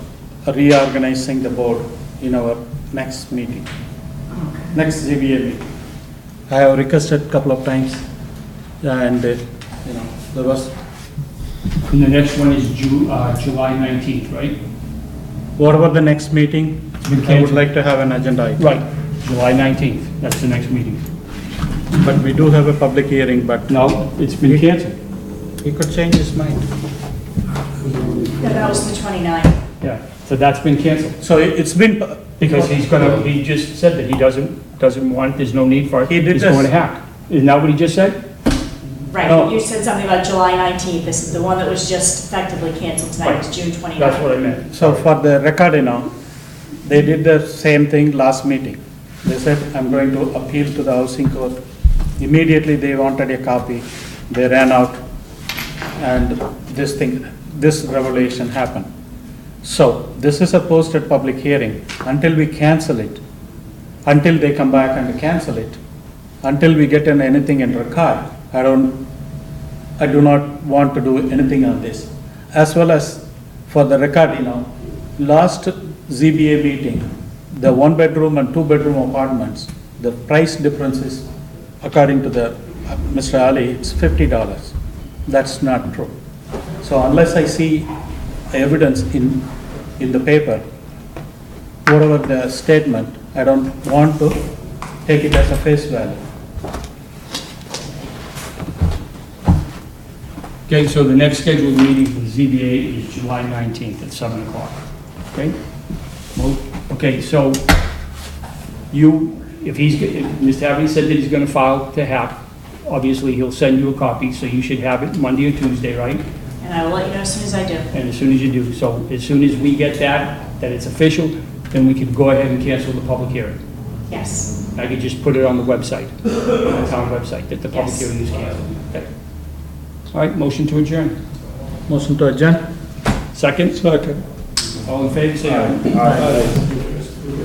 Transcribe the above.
reorganizing the board in our next meeting, next ZBA meeting. I have requested couple of times, and, uh, you know, there was, And the next one is Ju, uh, July nineteenth, right? what about the next meeting? We I would can't- like to have an agenda item. Right, July nineteenth, that's the next meeting. But we do have a public hearing, but No, it's been canceled. he could change his mind. No, that was the 29th. Yeah, so that's been canceled. So it- it's been, pu- Because he's gonna, he just said that he doesn't, doesn't want, there's no need for it. He did He's this. going to hack. Isn't that what he just said? No. Oh. Right, you said something about July 19th, this is the one that was just effectively canceled tonight, it's June 29th. That's what I meant. so for the record, you know, they did the same thing last meeting. They said, I'm going to appeal to the housing court. Immediately, they wanted a copy. They ran out, and this thing, this revelation happened. So this is a posted public hearing. Until we cancel it, until they come back and cancel it, until we get in anything in record, I don't, I do not want to do anything on this. As well as, for the record, you know, last ZBA meeting, the one-bedroom and two-bedroom apartments, the price difference is, according to the, uh, Mr. Ali, it's fifty dollars. That's not true. So unless I see evidence in, in the paper, whatever the statement, I don't want to take it as a face value. Okay, so the next scheduled meeting for the ZBA is July 19th at 7 o'clock, okay? Mo- Okay, so you, if he's, g- if Mr. Haverty said that he's gonna file to hack, obviously he'll send you a copy, so you should have it Monday or Tuesday, right? And I will let you know as soon as I do. And as soon as you do, so as soon as we get that, that it's official, then we can go ahead and cancel the public hearing. Yes, I could just put it on the website, on the town website, that the public Yes. hearing is canceled. Okay. All right, motion to adjourn. Motion to adjourn? Second? Second. All in favor, say aye.